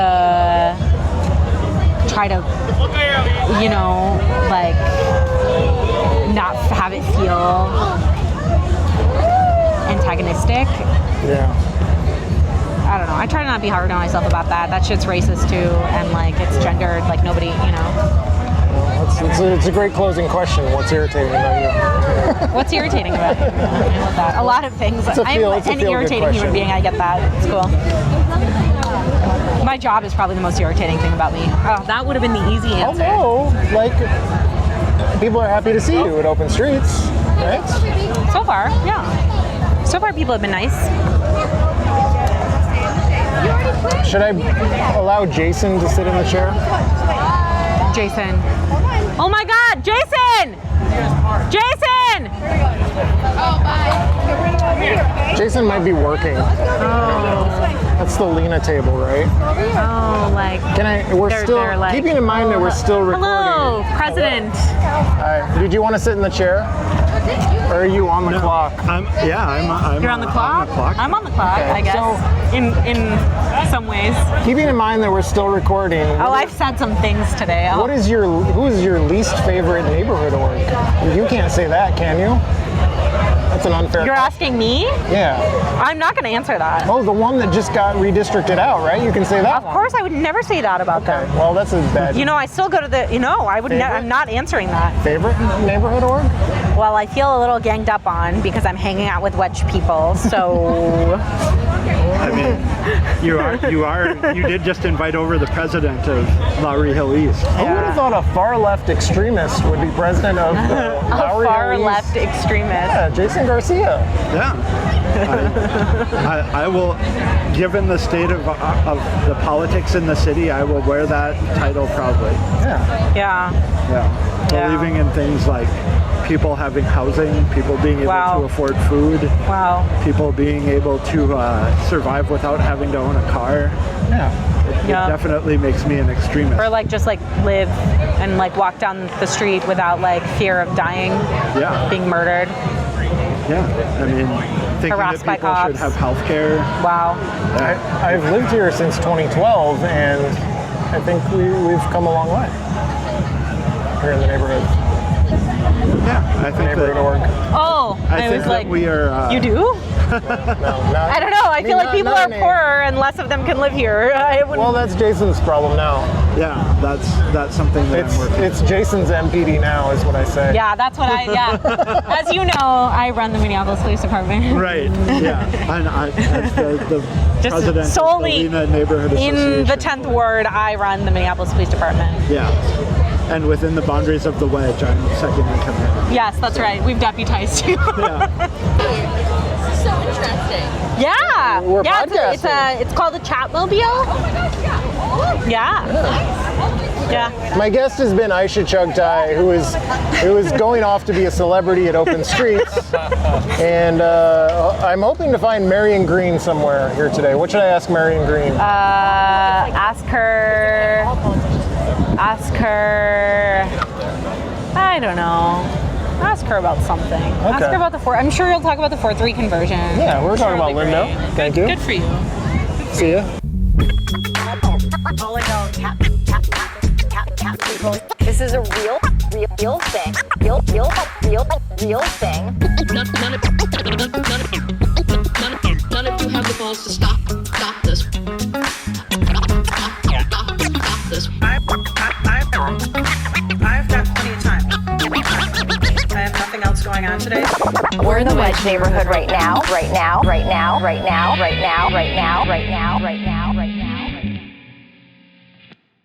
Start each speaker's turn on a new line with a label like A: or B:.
A: try to, you know, like not have it feel antagonistic.
B: Yeah.
A: I don't know. I try to not be hard on myself about that. That shit's racist too, and like it's gendered. Like nobody, you know.
B: Well, It's, it's, a, it's a great closing question. What's irritating about you?
A: What's irritating about it? I love that. A lot of things.
B: a feel-
A: I'm
B: it's a
A: an
B: feel-good
A: irritating human
B: question.
A: being. I get that. It's cool. My job is probably the most irritating thing about me. Oh, that would have been the easy answer.
B: Although, like, people are happy to see you at open streets, right?
A: So far, yeah. So far, people have been nice.
B: Should I allow Jason to sit in the chair?
A: Jason. Oh my God, Jason! Jason!
B: Jason might be working. That's the Lena table, right?
A: Oh, like.
B: Can I? We're
A: They're-
B: still
A: they're like-
B: keeping in mind that we're still recording.
A: Hello, President.
B: Alright, Did you want to sit in the chair? Or are you on the clock?
C: I'm, yeah, I'm, I'm
A: You're on the clock.
C: On the clock.
A: I'm on the clock.
B: Okay,
A: I guess.
B: so-
A: in in some ways.
B: Keeping in mind that we're still recording.
A: Oh, I've said some things today. Oh,
B: What is your who is your least favorite neighborhood org? You can't say that, can you? That's an unfair.
A: Oh, you're asking me?
B: yeah.
A: I'm not going to answer that.
B: Oh, the one that just got redistricted out, right? You can say that.
A: Of course, I would never say that about
B: Okay.
A: them.
B: Well, that's a bad.
A: You know, I still go to the. You know, I would. Ne-
B: Favorite?
A: I'm not answering that.
B: favorite neighborhood org?
A: Well, I feel a little ganged up on because I'm hanging out with wedge people. So.
C: I mean, you are, you are, you did just invite over the president of Lowry Hill East.
B: I would have thought a far left extremist would be president of the Lowry
A: far
B: East-
A: left extremist.
B: Yeah, Jason Garcia.
C: Yeah. I, I, I will, given the state of, of the politics in the city, I will wear that title proudly.
B: Yeah.
A: Yeah.
C: Yeah.
A: Yeah.
C: Believing in things like people having housing, people being able
A: Wow.
C: to afford food,
A: Wow.
C: people being able to uh, survive without having to own a car.
B: Yeah.
C: It
A: Yeah.
C: definitely makes me an extremist.
A: Or like just like live and like walk down the street without like fear of dying,
C: yeah,
A: being murdered.
C: yeah. I mean, thinking that
A: Harassed by
C: people should
A: cops.
C: have health care.
A: Wow.
B: I, I've lived here since 2012, and I think we, we've come a long way here in the neighborhood.
C: Yeah, I think
B: Neighborhood org.
C: that,
A: Oh,
C: I think
A: was
C: that
A: like,
C: we are. Uh,
A: you do?
B: No, not,
A: I don't know. I
B: mean,
A: feel like
B: not-
A: people
B: not
A: are
B: in a-
A: poorer and less of them can live here. I wouldn't.
B: Well, that's Jason's problem now.
C: Yeah, that's that's something that
B: It's
C: I'm working.
B: it's Jason's MPD now, is what I say.
A: yeah, that's what I. Yeah. As you know, I run the Minneapolis Police Department.
C: Right. Yeah. And I, as the, the
A: Just
C: president of the
A: solely
C: Lena Neighborhood
A: In the
C: Association.
A: tenth ward, I run the Minneapolis Police Department.
C: Yeah. And within the boundaries of the wedge, I'm second in command.
A: Yes, that's right. We've deputized you.
C: Yeah.
D: So interesting.
A: Yeah.
B: We're
A: yeah, it's a- It's, a, it's called a Chatmobile.
D: Oh my gosh, yeah.
A: Yeah. Yeah.
B: My guest has been Aisha Chugtai, who is who is going off to be a celebrity at Open Streets, and uh, I'm hoping to find Marion Green somewhere here today. What should I ask Marion Green?
A: Uh, ask her. Ask her. I don't know. Ask her about something. Ask
B: Okay.
A: her about the four. I'm sure you'll talk about the four three conversion.
B: yeah, we were talking about
A: Charlie
B: Lindo. Thank you.
A: Good for you.
B: See ya.
E: This is a real, real, real thing. Real, real, real, real thing.
F: none, none, of, none, of, none, of, none, of, none of you have the balls to stop, stop this. Stop, stop, stop this.
G: I've, I, I've, I've got plenty of time. I have nothing else going on today.
E: We're in the wedge neighborhood right now. Right now. Right now. Right now. Right now. Right now. Right now. Right now. Right now.